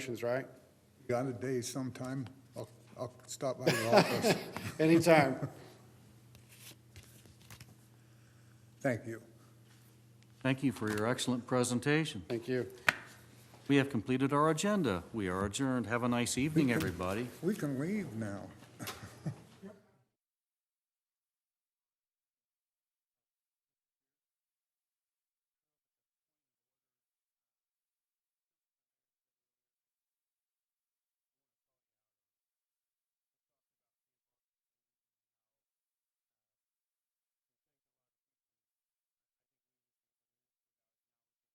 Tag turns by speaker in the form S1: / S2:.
S1: Questions, right?
S2: Got a day sometime, I'll, I'll stop by your office.
S1: Anytime.
S2: Thank you.
S3: Thank you for your excellent presentation.
S1: Thank you.
S3: We have completed our agenda. We are adjourned. Have a nice evening, everybody.
S2: We can leave now.